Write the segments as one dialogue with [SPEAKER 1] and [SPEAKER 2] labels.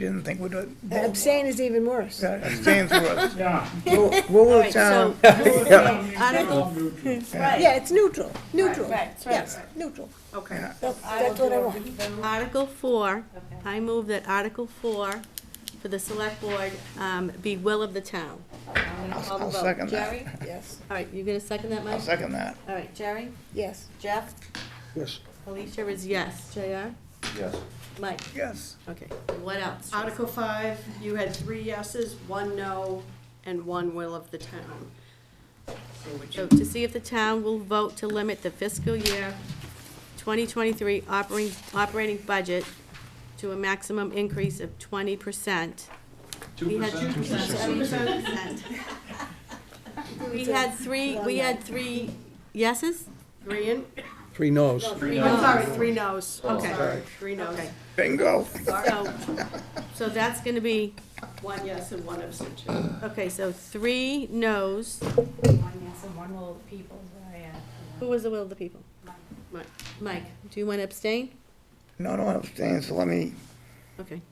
[SPEAKER 1] didn't think we'd. do it.
[SPEAKER 2] Abstain is even worse.
[SPEAKER 1] Yeah, Abstain's worse.
[SPEAKER 3] Yeah.
[SPEAKER 1] Rule of
[SPEAKER 4] Alright, so-
[SPEAKER 1] town,
[SPEAKER 4] I don't know.
[SPEAKER 2] Yeah, it's neutral, neutral.
[SPEAKER 4] Right, right,
[SPEAKER 2] Yes,
[SPEAKER 4] right.
[SPEAKER 2] neutral.
[SPEAKER 4] Okay.
[SPEAKER 2] That's,
[SPEAKER 4] I will
[SPEAKER 2] that's what I
[SPEAKER 4] do a
[SPEAKER 2] want.
[SPEAKER 4] Article four, I move that Article four for the select board um, be will of the town. I'm gonna call the
[SPEAKER 1] I'll
[SPEAKER 4] vote.
[SPEAKER 1] second that.
[SPEAKER 4] Jerry?
[SPEAKER 2] Yes,
[SPEAKER 4] All right, you gonna second that,
[SPEAKER 1] I'll
[SPEAKER 4] Mike?
[SPEAKER 1] second that.
[SPEAKER 4] All right, Jerry?
[SPEAKER 2] yes.
[SPEAKER 4] Jeff?
[SPEAKER 1] Yes.
[SPEAKER 4] Alicia is yes. JR?
[SPEAKER 5] Yes.
[SPEAKER 4] Mike?
[SPEAKER 1] Yes.
[SPEAKER 4] Okay, what else?
[SPEAKER 6] Article five, you had three yeses, one no, and one will of the town.
[SPEAKER 4] So to see if the town will vote to limit the fiscal year 2023 operating, operating budget to a maximum increase of 20%. We had 2%. We had three, we had three yeses?
[SPEAKER 6] Three in,
[SPEAKER 7] Three no's.
[SPEAKER 6] I'm sorry, three nos, okay, three nos.
[SPEAKER 4] Okay.
[SPEAKER 1] Bingo.
[SPEAKER 4] So, so that's gonna be,
[SPEAKER 6] One yes and one abstention.
[SPEAKER 4] okay, so three noes.
[SPEAKER 8] One yes and one will people, oh, yeah.
[SPEAKER 4] Who was the will of the people? Mike. Mike, do you want to abstain?
[SPEAKER 1] No, no, abstain, so let me,
[SPEAKER 4] Okay.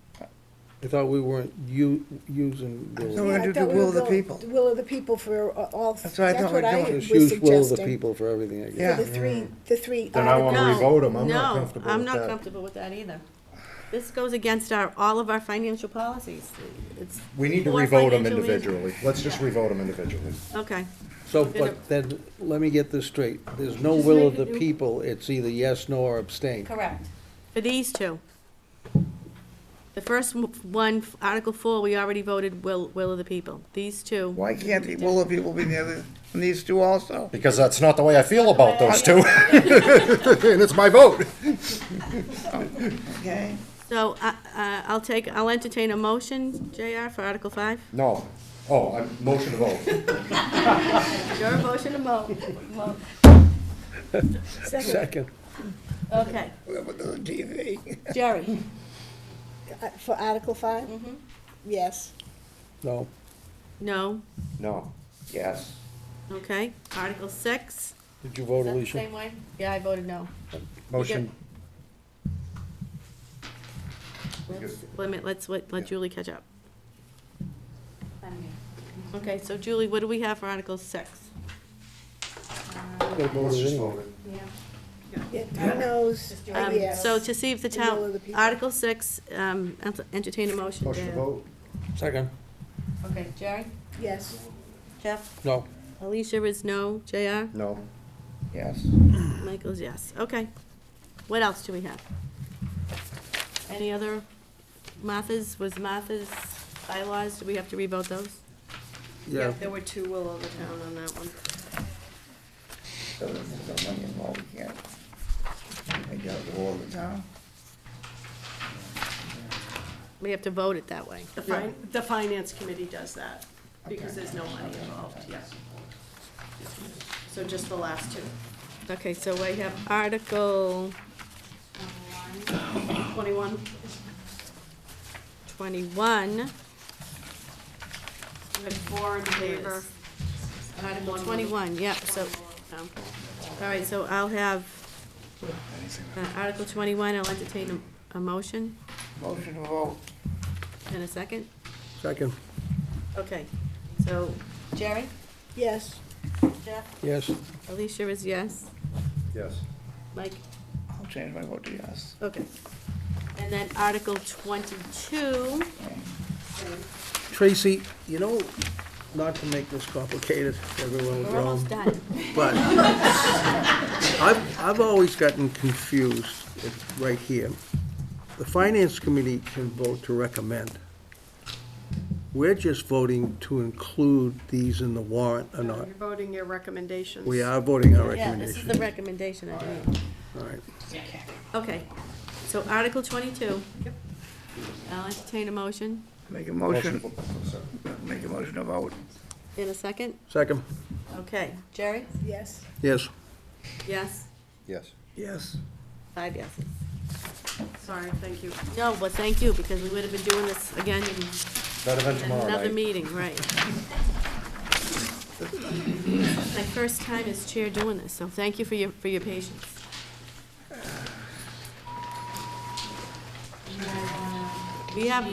[SPEAKER 7] I thought we weren't u- using
[SPEAKER 1] So we're
[SPEAKER 7] will.
[SPEAKER 2] Yeah, I
[SPEAKER 1] gonna do
[SPEAKER 2] thought we
[SPEAKER 1] will of
[SPEAKER 2] were
[SPEAKER 1] the
[SPEAKER 2] going-
[SPEAKER 1] people.
[SPEAKER 2] Will of the people for uh, all,
[SPEAKER 1] That's
[SPEAKER 2] that's
[SPEAKER 1] what I
[SPEAKER 2] what
[SPEAKER 1] thought we were
[SPEAKER 2] I
[SPEAKER 1] doing.
[SPEAKER 2] was
[SPEAKER 7] Just
[SPEAKER 2] suggesting.
[SPEAKER 7] use will of the people for everything, I guess.
[SPEAKER 1] Yeah.
[SPEAKER 2] For the three, the three.
[SPEAKER 5] Then I won't
[SPEAKER 2] articles.
[SPEAKER 4] No,
[SPEAKER 5] revote 'em. I'm not
[SPEAKER 4] no,
[SPEAKER 5] comfortable
[SPEAKER 4] I'm
[SPEAKER 5] with
[SPEAKER 4] not
[SPEAKER 5] that.
[SPEAKER 4] comfortable with that either. This goes against our, all of our financial policies. It's,
[SPEAKER 5] We need to
[SPEAKER 4] Or
[SPEAKER 5] revote them
[SPEAKER 4] financially-
[SPEAKER 5] individually. Let's just revote them individually.
[SPEAKER 4] okay,
[SPEAKER 7] So, but then, let me get this straight. There's no will of the people. It's either yes, no, or abstain.
[SPEAKER 8] Correct.
[SPEAKER 4] for these two. The first one, Article Four, we already voted will, will of the people. These two.
[SPEAKER 1] why can't the will of people be the other, and these two also?
[SPEAKER 5] Because that's not the way I feel about those two. And it's my vote.
[SPEAKER 1] Okay,
[SPEAKER 4] So, uh, uh, I'll take, I'll entertain a motion, JR, for Article Five.
[SPEAKER 5] No. Oh, I motion to vote.
[SPEAKER 4] Your motion to mo, mo-
[SPEAKER 2] Second,
[SPEAKER 7] Second.
[SPEAKER 4] okay.
[SPEAKER 1] with the TV.
[SPEAKER 4] Jerry?
[SPEAKER 2] uh, for Article five?
[SPEAKER 4] Mm-hmm.
[SPEAKER 2] Yes.
[SPEAKER 7] No.
[SPEAKER 4] No,
[SPEAKER 5] No.
[SPEAKER 1] Yes.
[SPEAKER 4] okay. Article Six?
[SPEAKER 7] Did you vote,
[SPEAKER 4] Is that the
[SPEAKER 7] Alicia?
[SPEAKER 4] Same way? Yeah, I voted no.
[SPEAKER 5] Motion.
[SPEAKER 4] Limit, let's let let Julie catch up. Okay, so Julie, what do we have for Article Six?
[SPEAKER 7] Gotta vote
[SPEAKER 5] Let's
[SPEAKER 7] it
[SPEAKER 5] just
[SPEAKER 7] anyway.
[SPEAKER 5] vote it.
[SPEAKER 2] Yeah, Three no's, a
[SPEAKER 4] Um,
[SPEAKER 2] yes.
[SPEAKER 4] So to see if the
[SPEAKER 2] The will of
[SPEAKER 4] town,
[SPEAKER 2] the people.
[SPEAKER 4] Article Six, um, ent- entertain a motion.
[SPEAKER 5] Motion to
[SPEAKER 4] Dan.
[SPEAKER 5] vote.
[SPEAKER 7] Second.
[SPEAKER 4] Okay, Jerry?
[SPEAKER 2] Yes.
[SPEAKER 4] Jeff?
[SPEAKER 7] No.
[SPEAKER 4] Alicia is no, JR?
[SPEAKER 5] No.
[SPEAKER 1] Yes.
[SPEAKER 4] Michael's yes, okay. What else do we have? Any other, Martha's, was Martha's bylaws, do we have to revote those?
[SPEAKER 7] Yeah.
[SPEAKER 6] There were two will of the town on that one.
[SPEAKER 1] So there's no money involved, we can't. I got the will of the town.
[SPEAKER 4] We have to vote it that way.
[SPEAKER 6] The fin, the finance committee does that, because there's no money involved, yeah. So just the last two.
[SPEAKER 4] Okay, so we have Article
[SPEAKER 6] Twenty-one,
[SPEAKER 4] twenty-one.
[SPEAKER 6] you had four in favor.
[SPEAKER 4] Article twenty-one, yeah, so, um, all right, so I'll have, uh, Article twenty-one, I'll entertain a, a motion
[SPEAKER 1] Motion to vote.
[SPEAKER 4] in a second.
[SPEAKER 7] Second.
[SPEAKER 4] Okay, so Jerry?
[SPEAKER 2] Yes.
[SPEAKER 4] Jeff?
[SPEAKER 7] Yes.
[SPEAKER 4] Alicia is yes.
[SPEAKER 5] Yes.
[SPEAKER 4] Mike?
[SPEAKER 1] I'll change my vote to yes.
[SPEAKER 4] Okay. And then Article twenty-two,
[SPEAKER 7] Tracy, you know, not to make this complicated, everyone will
[SPEAKER 4] we're
[SPEAKER 7] groan,
[SPEAKER 4] almost done.
[SPEAKER 7] but I've, I've always gotten confused It's right here. The Finance Committee can vote to recommend. We're just voting to include these in the warrant or
[SPEAKER 6] You're
[SPEAKER 7] not.
[SPEAKER 6] voting your recommendations.
[SPEAKER 7] We are voting our
[SPEAKER 4] Yeah, this is the recommendation,
[SPEAKER 7] recommendation.
[SPEAKER 4] I believe.
[SPEAKER 7] All right.
[SPEAKER 4] Okay, so Article twenty-two. Yep. I'll entertain a motion
[SPEAKER 1] Make a motion, make a motion to vote.
[SPEAKER 4] in a second.
[SPEAKER 7] Second.
[SPEAKER 4] Okay, Jerry?
[SPEAKER 2] Yes.
[SPEAKER 7] Yes.
[SPEAKER 4] Yes,
[SPEAKER 5] Yes.
[SPEAKER 1] Yes.
[SPEAKER 4] five yeses.
[SPEAKER 6] Sorry, thank you.
[SPEAKER 4] No, but thank you, because we would have been doing this again in
[SPEAKER 5] Better than tomorrow
[SPEAKER 4] another
[SPEAKER 5] night.
[SPEAKER 4] meeting, right? My first time as chair doing this, so thank you for your, for your patience. We have